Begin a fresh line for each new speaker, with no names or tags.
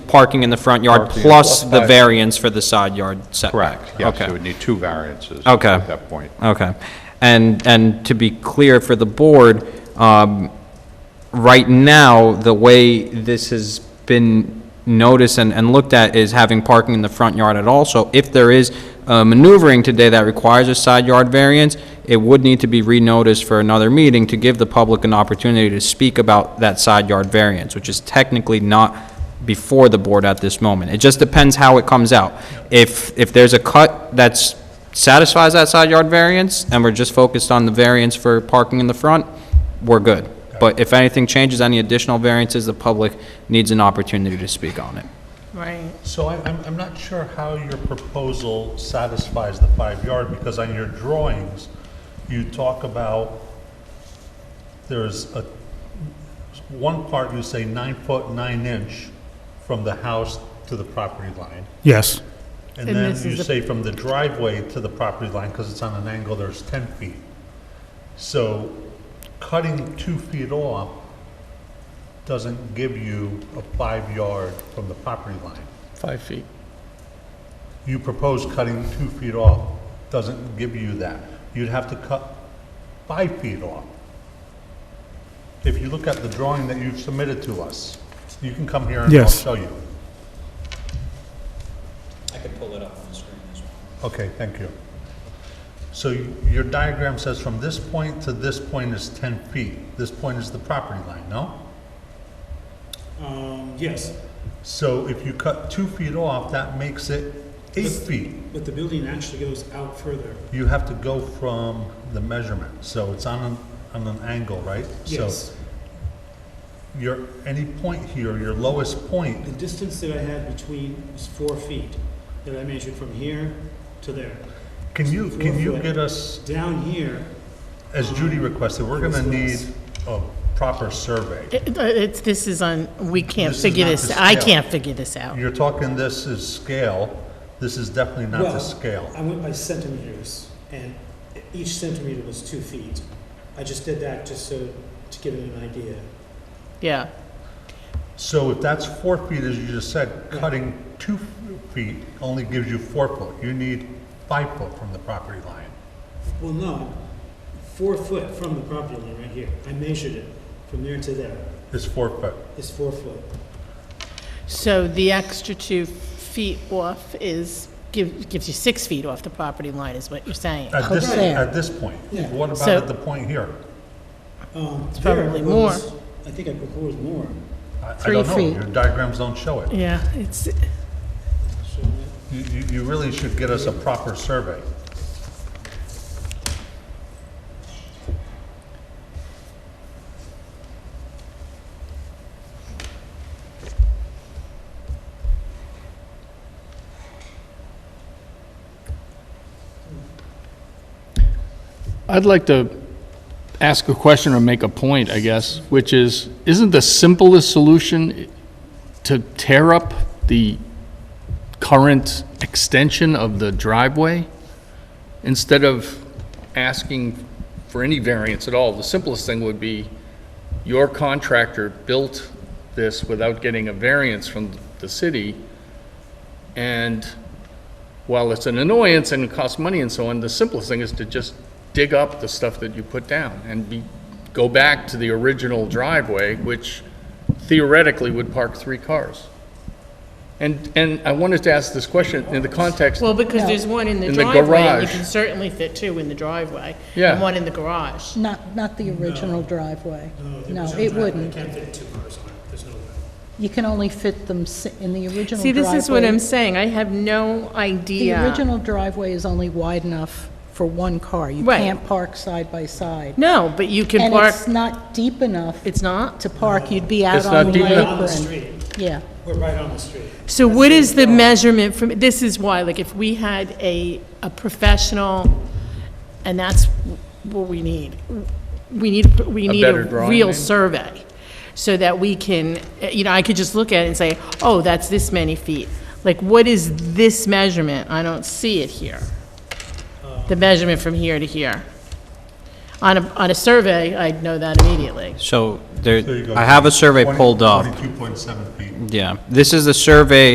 parking in the front yard
Parking
plus
plus
the
five.
variance for the side yard setback?
Correct, yes,
Okay.
it would need two variances
Okay.
at that point.
Okay. And, and to be clear for the board, um, right now, the way this has been noticed and, and looked at is having parking in the front yard at all. So if there is uh, maneuvering today that requires a side yard variance, it would need to be re-noticed for another meeting to give the public an opportunity to speak about that side yard variance, which is technically not before the board at this moment. It just depends how it comes out. If, if there's a cut that's, satisfies that side yard variance, and we're just focused on the variance for parking in the front, we're good. But if anything changes, any additional variances, the public needs an opportunity to speak on it.
Right.
So I- I'm, I'm not sure how your proposal satisfies the five-yard, because on your drawings, you talk about, there's a, one part you say nine foot, nine inch from the house to the property line.
Yes,
And
And
then
this
you
is the-
say from the driveway to the property line, because it's on an angle, there's 10 feet. So cutting two feet off doesn't give you a five-yard from the property line.
Five feet.
You propose cutting two feet off, doesn't give you that. You'd have to cut five feet off. If you look at the drawing that you've submitted to us, you can come here and I'll
Yes.
show you. I can pull it up on the screen as well. Okay, thank you. So y- your diagram says from this point to this point is 10 feet. This point is the property line, no?
Um, yes,
So if you cut two feet off, that makes it eight feet.
but the building actually goes out further.
You have to go from the measurement, so it's on an, on an angle, right?
Yes.
So your, any point here, your lowest point,
The distance that I had between was four feet that I measured from here to there.
can you, can you
Four foot.
get us,
Down here,
as Judy requested, we're gonna need
Yes.
a proper survey.
It- It's, this is on, we can't
This is
figure
not
this,
the
I
scale.
can't figure this out.
You're talking this is scale, this is definitely not
Well,
the scale.
I went by centimeters, and each centimeter was two feet. I just did that just so, to give it an idea.
Yeah,
So if that's four feet, as you just said, cutting two feet only gives you four foot. You need five foot from the property line.
Well, no, four foot from the property line right here. I measured it from there to there.
It's four foot.
It's four foot.
so the extra two feet off is, give- gives you six feet off the property line, is what you're saying.
At this,
Okay.
at this point,
Yeah.
what about
So-
at the point here?
Um,
It's
there I
probably more.
proposed- I think I proposed more.
I-
Three
I don't
feet.
know, your diagrams don't show it.
Yeah, it's,
Showing it.
You, you- you really should get us a proper survey.
I'd like to ask a question or make a point, I guess, which is, isn't the simplest solution to tear up the current extension of the driveway instead of asking for any variance at all? The simplest thing would be your contractor built this without getting a variance from the city, and while it's an annoyance and it costs money and so on, the simplest thing is to just dig up the stuff that you put down and be, go back to the original driveway, which theoretically would park three cars. And, and I wanted to ask this question in the context,
well, because there's one in the
In the
driveway, and you
garage.
can certainly fit two in the driveway.
Yeah.
And one in the garage.
Not, not the original driveway. No, it wouldn't.
Can't fit two cars on it, there's no way.
You can only fit them si- in the original driveway.
See, this is what I'm saying, I have no
The
idea.
original driveway is only wide enough for one car. You
Right.
can't park side by side.
No, but you can
And
park,
it's not deep enough
it's not?
to park. You'd be out
It's
on
not
the
deep
apron.
enough.
On the street,
Yeah.
we're right on the street.
So what is the measurement from, this is why, like, if we had a, a professional, and that's what we need. We need, we need
better
a
drawing,
real
maybe?
survey, so that we can, uh, you know, I could just look at it and say, oh, that's this many feet. Like, what is this measurement? I don't see it here. The measurement from here to here. on a, on a survey, I'd know that immediately.
So
There you
there,
go.
I have a survey
20
pulled up.
22.7 feet.
Yeah, this is the survey